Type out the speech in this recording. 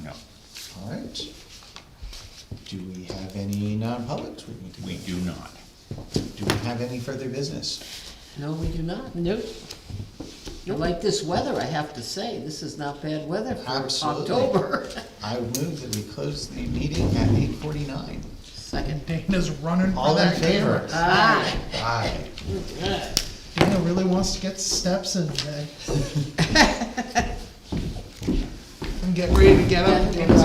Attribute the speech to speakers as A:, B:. A: All right. Do we have any non-publics we need to?
B: We do not.
A: Do we have any further business?
C: No, we do not.
D: Nope.
C: I like this weather, I have to say. This is not bad weather for
A: Absolutely.
C: October.
A: I move that we close the meeting at eight forty-nine.
C: Second.
E: Dana's running for
A: All in
E: that
A: favor?
E: camera.
C: Ah,
A: Aye.
E: Dana really wants to get steps in today. I'm getting ready to get up.